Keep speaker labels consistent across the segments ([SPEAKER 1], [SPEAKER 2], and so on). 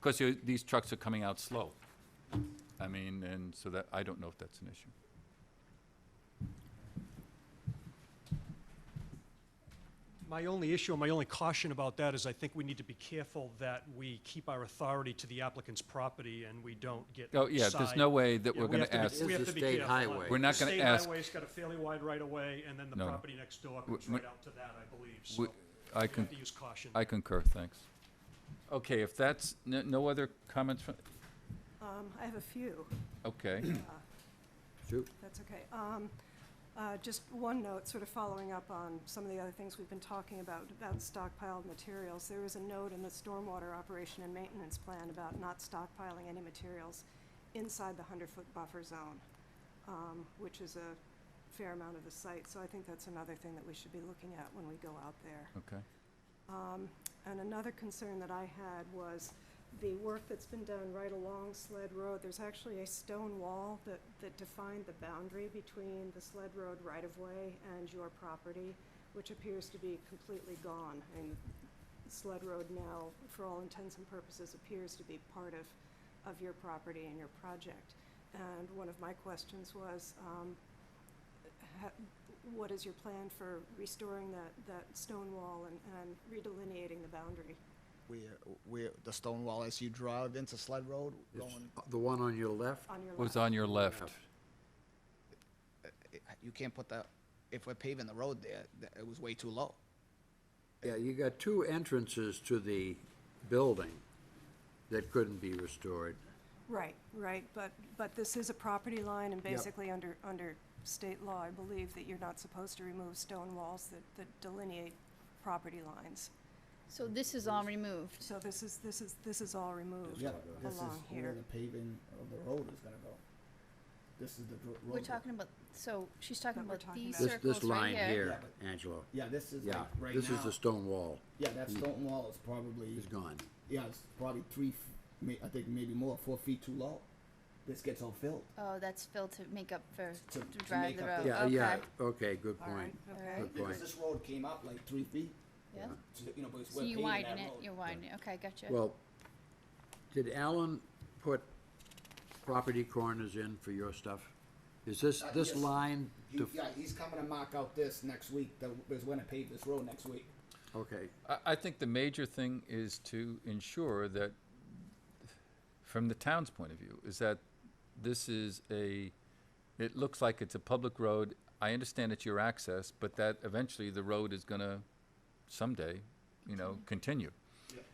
[SPEAKER 1] because these trucks are coming out slow. I mean, and so that, I don't know if that's an issue.
[SPEAKER 2] My only issue, and my only caution about that is I think we need to be careful that we keep our authority to the applicant's property and we don't get.
[SPEAKER 1] Oh, yeah, there's no
[SPEAKER 2] side-
[SPEAKER 1] way that
[SPEAKER 2] Yeah,
[SPEAKER 1] we're
[SPEAKER 2] we
[SPEAKER 1] gonna
[SPEAKER 2] have to be-
[SPEAKER 1] ask,
[SPEAKER 2] we
[SPEAKER 3] This
[SPEAKER 2] have
[SPEAKER 3] is
[SPEAKER 2] to be
[SPEAKER 3] state
[SPEAKER 2] careful on-
[SPEAKER 3] highway.
[SPEAKER 1] We're not
[SPEAKER 2] the
[SPEAKER 1] gonna
[SPEAKER 2] State
[SPEAKER 1] ask-
[SPEAKER 2] highway's got a fairly wide right of way, and then the
[SPEAKER 1] No.
[SPEAKER 2] property next door comes
[SPEAKER 1] we-
[SPEAKER 2] right out to that, I believe, so
[SPEAKER 1] we-
[SPEAKER 2] we
[SPEAKER 1] I
[SPEAKER 2] have
[SPEAKER 1] can,
[SPEAKER 2] to use caution.
[SPEAKER 1] I concur, thanks. Okay, if that's, no, no other comments from,
[SPEAKER 4] Um, I have a few,
[SPEAKER 1] okay,
[SPEAKER 3] Shoot.
[SPEAKER 4] if that's okay. Um, uh, just one note, sort of following up on some of the other things we've been talking about, about stockpiled materials. There was a note in the stormwater operation and maintenance plan about not stockpiling any materials inside the hundred-foot buffer zone, um, which is a fair amount of the site, so I think that's another thing that we should be looking at when we go out there.
[SPEAKER 1] okay.
[SPEAKER 4] Um, And another concern that I had was the work that's been done right along Sled Road. There's actually a stone wall that, that defined the boundary between the Sled Road right-of-way and your property, which appears to be completely gone. And Sled Road now, for all intents and purposes, appears to be part of, of your property and your project. And one of my questions was, um, ha- what is your plan for restoring that, that stone wall and, and redelineating the boundary?
[SPEAKER 5] Where, where, the stone wall as you drive into Sled Road, going,
[SPEAKER 3] The one on your left?
[SPEAKER 4] On your
[SPEAKER 1] Was
[SPEAKER 4] left.
[SPEAKER 1] on your left,
[SPEAKER 5] you can't put the, if we're paving the road there, th- it was way too low.
[SPEAKER 3] Yeah, you got two entrances to the building that couldn't be restored.
[SPEAKER 4] Right, right, but, but this is a property line, and basically under, under state law, I believe that you're not supposed to remove stone walls that, that delineate property lines.
[SPEAKER 6] So this is all removed.
[SPEAKER 4] So this is, this is, this is all removed along here.
[SPEAKER 5] paving of the road is gonna go. This is the
[SPEAKER 6] We're talking about, so she's talking
[SPEAKER 4] That we're
[SPEAKER 6] about
[SPEAKER 4] talking
[SPEAKER 6] these
[SPEAKER 4] about.
[SPEAKER 3] This,
[SPEAKER 6] circles
[SPEAKER 3] this line
[SPEAKER 6] right here.
[SPEAKER 3] here, Angelo.
[SPEAKER 7] Yeah, this is
[SPEAKER 3] Yeah,
[SPEAKER 7] like right
[SPEAKER 3] this
[SPEAKER 7] now.
[SPEAKER 3] is the stone wall.
[SPEAKER 7] yeah, that stone wall is probably
[SPEAKER 3] It's gone.
[SPEAKER 7] yeah, it's probably three, f- may, I think maybe more, four feet too low. This gets all filled.
[SPEAKER 6] Oh, that's filled to make up for,
[SPEAKER 7] To-
[SPEAKER 6] to
[SPEAKER 7] to
[SPEAKER 6] drive
[SPEAKER 7] make
[SPEAKER 6] the
[SPEAKER 7] up
[SPEAKER 6] road,
[SPEAKER 7] the-
[SPEAKER 3] Yeah, yeah,
[SPEAKER 6] Oh, okay.
[SPEAKER 3] okay, good
[SPEAKER 4] All right,
[SPEAKER 3] point.
[SPEAKER 4] okay.
[SPEAKER 6] Alright.
[SPEAKER 3] Good
[SPEAKER 7] Because
[SPEAKER 3] point.
[SPEAKER 7] this road came up like three feet.
[SPEAKER 6] Yeah.
[SPEAKER 7] So, you know, but it's
[SPEAKER 6] So
[SPEAKER 7] we're
[SPEAKER 6] you
[SPEAKER 7] paving
[SPEAKER 6] widen
[SPEAKER 7] that
[SPEAKER 6] it,
[SPEAKER 7] road.
[SPEAKER 6] you widen it, okay, gotcha.
[SPEAKER 3] Well, did Alan put property corners in for your stuff? Is this,
[SPEAKER 7] Uh,
[SPEAKER 3] this
[SPEAKER 7] yes.
[SPEAKER 3] line,
[SPEAKER 7] He-
[SPEAKER 3] def-
[SPEAKER 7] yeah, he's coming to mark out this next week. The, is when to pave this road next week.
[SPEAKER 3] okay,
[SPEAKER 1] I, I think the major thing is to ensure that, from the town's point of view, is that this is a, it looks like it's a public road. I understand it's your access, but that eventually the road is gonna someday, you know, continue.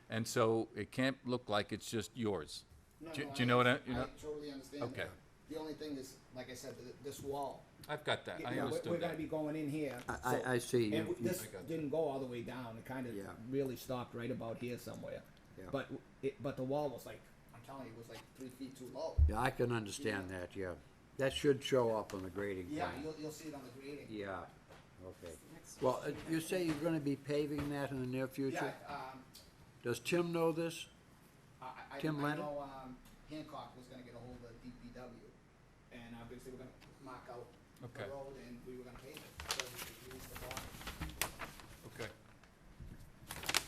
[SPEAKER 1] And so it can't look like it's just yours.
[SPEAKER 7] No,
[SPEAKER 1] Do
[SPEAKER 7] no,
[SPEAKER 1] do you know what I, you
[SPEAKER 7] I
[SPEAKER 1] know?
[SPEAKER 7] totally understand.
[SPEAKER 1] Okay.
[SPEAKER 7] that. The only thing is, like I said, th- this wall.
[SPEAKER 1] I've got that,
[SPEAKER 7] Yeah,
[SPEAKER 1] I
[SPEAKER 7] yeah, we're- We're
[SPEAKER 1] understood
[SPEAKER 7] gonna
[SPEAKER 1] that.
[SPEAKER 7] be going in here.
[SPEAKER 3] I- I-
[SPEAKER 7] so-
[SPEAKER 3] I see.
[SPEAKER 7] And
[SPEAKER 3] You-
[SPEAKER 7] w- this
[SPEAKER 1] I got that.
[SPEAKER 7] didn't go all the way down, it kind of
[SPEAKER 3] Yeah.
[SPEAKER 7] really stopped right about here somewhere.
[SPEAKER 3] Yeah.
[SPEAKER 7] But, w- it, but the wall was like, I'm telling you, it was like three feet too low.
[SPEAKER 3] yeah, I can understand that, yeah. That should show up on the grading
[SPEAKER 7] Yeah,
[SPEAKER 3] plan.
[SPEAKER 7] you'll, you'll see it on the grading.
[SPEAKER 3] Yeah, okay.
[SPEAKER 4] Next.
[SPEAKER 3] Well, uh, you say you're gonna be paving that in the near
[SPEAKER 7] Yeah,
[SPEAKER 3] future?
[SPEAKER 7] um,
[SPEAKER 3] Does Tim know this?
[SPEAKER 7] I, I, I
[SPEAKER 3] Tim
[SPEAKER 7] know,
[SPEAKER 3] Lennon?
[SPEAKER 7] um, Hancock was gonna get ahold of DPW, and obviously we're gonna mark out the
[SPEAKER 1] Okay.
[SPEAKER 7] road, and we were gonna pave it, so we could use the bottom.
[SPEAKER 1] Okay.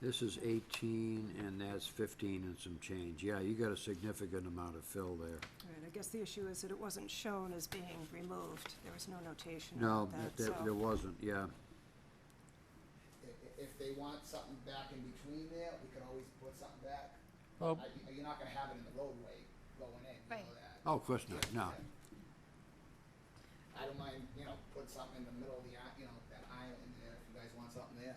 [SPEAKER 3] This is eighteen and that's fifteen and some change. Yeah, you got a significant amount of fill there.
[SPEAKER 4] All right, I guess the issue is that it wasn't shown as being removed. There was no notation
[SPEAKER 3] No,
[SPEAKER 4] about
[SPEAKER 3] that-
[SPEAKER 4] that, so.
[SPEAKER 3] that, there wasn't, yeah.
[SPEAKER 7] I- i- If they want something back in between there, we could always put something back.
[SPEAKER 3] Oh.
[SPEAKER 1] Well-
[SPEAKER 7] Uh, you- You're not gonna have it in the roadway going in, you know
[SPEAKER 6] Right.
[SPEAKER 7] that.
[SPEAKER 3] Oh, of course not, no.
[SPEAKER 7] I don't mind, you know, put something in the middle of the, i- you know, that island there, if you guys want something there.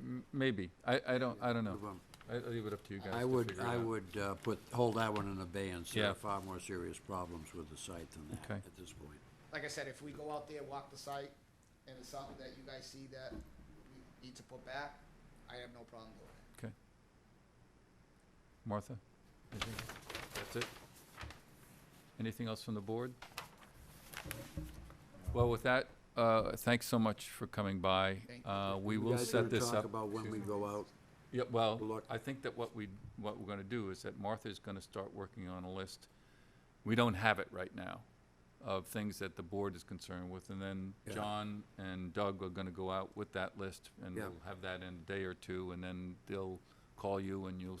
[SPEAKER 1] M- Maybe, I, I don't, I don't know.
[SPEAKER 3] Well,
[SPEAKER 1] I, I'll leave it up to you guys to
[SPEAKER 3] I would,
[SPEAKER 1] figure it
[SPEAKER 3] I
[SPEAKER 1] out.
[SPEAKER 3] would, uh, put, hold that one in abeyance. There
[SPEAKER 1] Yeah.
[SPEAKER 3] are far more serious problems with the site than that
[SPEAKER 1] Okay.
[SPEAKER 3] at this point.
[SPEAKER 7] Like I said, if we go out there, walk the site, and it's something that you guys see that we need to put back, I have no problem doing it.
[SPEAKER 1] Okay. Martha? anything? That's it? Anything else from the board? Well, with that, uh, thanks so much for coming by.
[SPEAKER 7] Thank
[SPEAKER 1] Uh, We
[SPEAKER 3] You
[SPEAKER 1] will
[SPEAKER 3] guys
[SPEAKER 1] set
[SPEAKER 3] gonna
[SPEAKER 1] this
[SPEAKER 3] Talk
[SPEAKER 1] up.
[SPEAKER 3] about when we go out.
[SPEAKER 1] Yeah, well,
[SPEAKER 3] Look.
[SPEAKER 1] I think that what we, what we're gonna do is that Martha's gonna start working on a list. We don't have it right now of things that the board is concerned with, and then
[SPEAKER 3] Yeah.
[SPEAKER 1] John and Doug are gonna go out with that list, and
[SPEAKER 3] Yeah.
[SPEAKER 1] we'll have that in a day or two, and then they'll call you and you'll